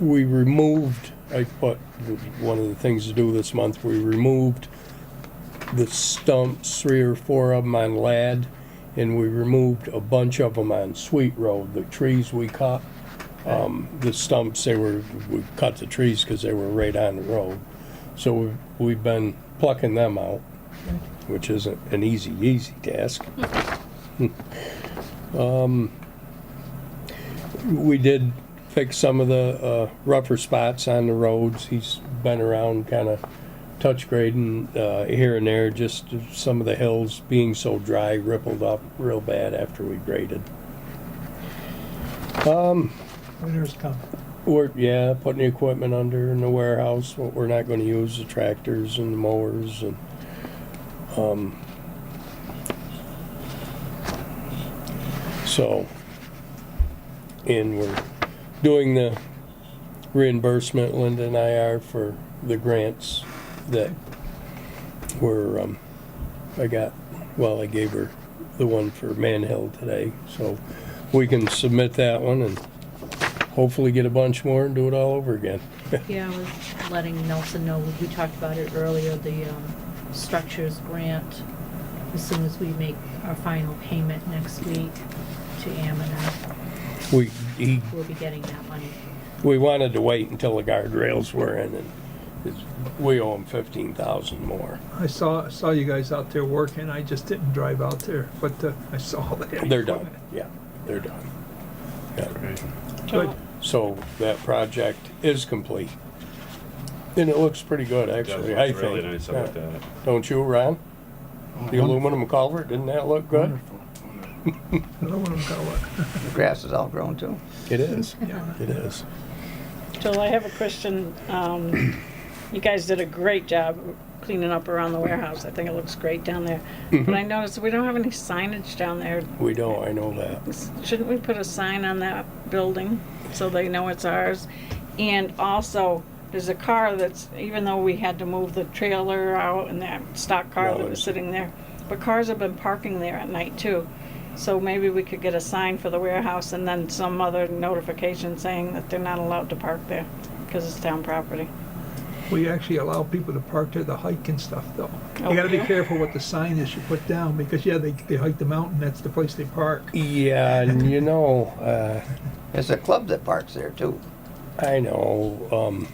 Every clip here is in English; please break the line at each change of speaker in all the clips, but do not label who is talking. we removed, I put, one of the things to do this month, we removed the stumps, three or four of them on Lad, and we removed a bunch of them on Sweet Road, the trees we cut. Um, the stumps, they were, we cut the trees because they were right on the road. So we've, we've been plucking them out, which isn't an easy, easy task. we did fix some of the uh, rougher spots on the roads. He's been around kind of touch grading uh, here and there, just some of the hills being so dry rippled up real bad after we graded.
Winter's coming.
We're, yeah, putting the equipment under in the warehouse, what we're not gonna use, the tractors and the mowers and, um, so, and we're doing the reimbursement, Linda and I are, for the grants that were, um, I got, well, I gave her the one for Manhill today, so we can submit that one and hopefully get a bunch more and do it all over again.
Yeah, I was letting Nelson know, we talked about it earlier, the um, structures grant, as soon as we make our final payment next week to Amina,
We, he,
we'll be getting that money.
we wanted to wait until the guardrails were in and it's- we owe him fifteen thousand more.
I saw, saw you guys out there working, I just didn't drive out there, but uh, I saw that.
They're done, yeah, they're done. Yeah.
Good.
So that project is complete. And it looks pretty good, actually, I
That's
think.
really nice uh, about
Yeah.
that.
Don't you, Ron? The aluminum culvert, didn't that look good?
Aluminum color.
The grass is all grown too.
It is, it is.
Joel, I have a question. Um, You guys did a great job cleaning up around the warehouse. I think it looks great down there. But I noticed we don't have any signage down there.
We know, I know that.
Shouldn't we put a sign on that building so they know it's ours? And also, there's a car that's, even though we had to move the trailer out and that stock car that was
Dollars.
sitting there, but cars have been parking there at night too. So maybe we could get a sign for the warehouse and then some other notification saying that they're not allowed to park there because it's town property.
We actually allow people to park there, to hike and stuff though. You gotta be
Okay.
careful what the sign is you put down, because yeah, they, they hike the mountain, that's the place they park.
Yeah, and you know, uh,
There's a club that parks there too.
I know, um,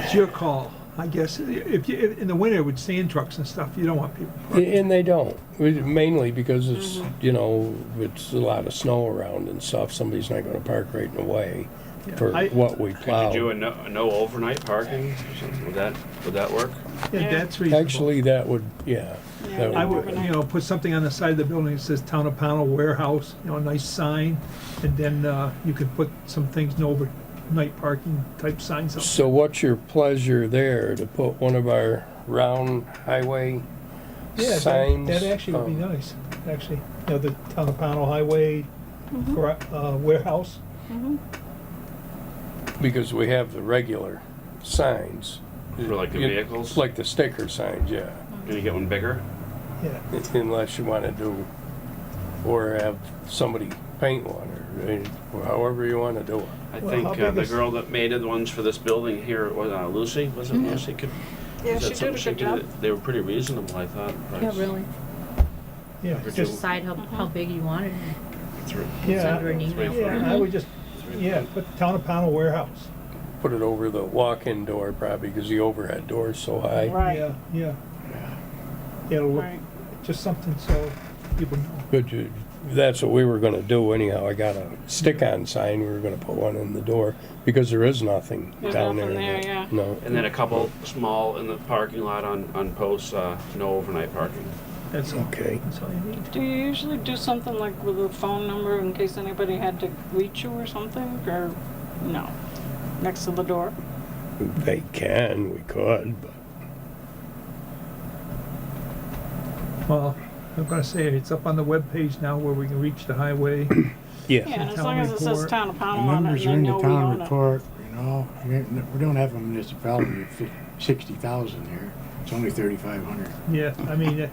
It's your call, I guess. If you, in the winter with sand trucks and stuff, you don't want people parking.
And they don't, mainly because it's, you know, it's a lot of snow around and stuff, somebody's not gonna park right in the way for
I-
what we
Could you do a
plow.
no, a no overnight parking or something? Would that, would that work?
Yeah, that's reasonable.
Actually, that would, yeah.
Yeah,
that
I
would-
would, you know, put something on the side of the building that says Town of Pownell Warehouse, you know, a nice sign, and then, uh, you could put some things, no overnight parking type signs up.
So what's your pleasure there, to put one of our round highway
Yeah, that-
signs?
That actually would be
um,
nice, actually, you know, the Town of Pownell Highway,
Mm-hmm.
gra- uh, warehouse,
Because we have the regular signs.
For like the
You-
vehicles?
Like the sticker signs, yeah,
Can you get one bigger?
yeah.
unless you wanna do, or have somebody paint one, or uh, however you wanna do it.
I
Well,
think
how
uh,
big
the
is-
girl that made the ones for this building here, was uh, Lucy, was it Lucy? Could-
Mm-hmm. Yeah,
is that
she
something
did a
could
good job.
do? They were pretty reasonable, I thought. the price.
Yeah,
Would
just,
Decide how, how big you want it,
Three-
yeah,
send her an email.
yeah, I would just, yeah, put Town of Pownell Warehouse.
put it over the walk-in door probably because the overhead door is so high.
Right,
Yeah, yeah. It'll look,
right.
just something so people know.
But you- that's what we were gonna do anyhow. I got a stick-on sign. We were gonna put one in the door because there is nothing
There's
down there.
nothing there,
that-
yeah.
No.
And then a couple small in the parking lot on, on posts, uh, no overnight parking.
That's all.
Okay.
That's all you need.
Do you usually do something like with a phone number in case anybody had to reach you or something, or no? Next to the door?
They can, we could, but
Well, I'm gonna say it, it's up on the webpage now where we can reach the highway.
Yeah,
yeah.
and as long as it says
report.
town of
The
Pownell on it,
numbers are
and
in
they know
the
we
town
own it.
report, you know, we ain't- we don't have a municipality of fif- 60,000 here. It's only 3,500.
Yeah, I mean, uh,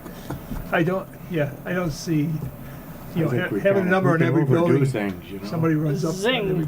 I don't, yeah, I don't see,
I
you know,
think
ha- having
we
a
kinda-
number
we
in
can
every
overdo
building,
Things, you know.
somebody runs up. on
Zing.
every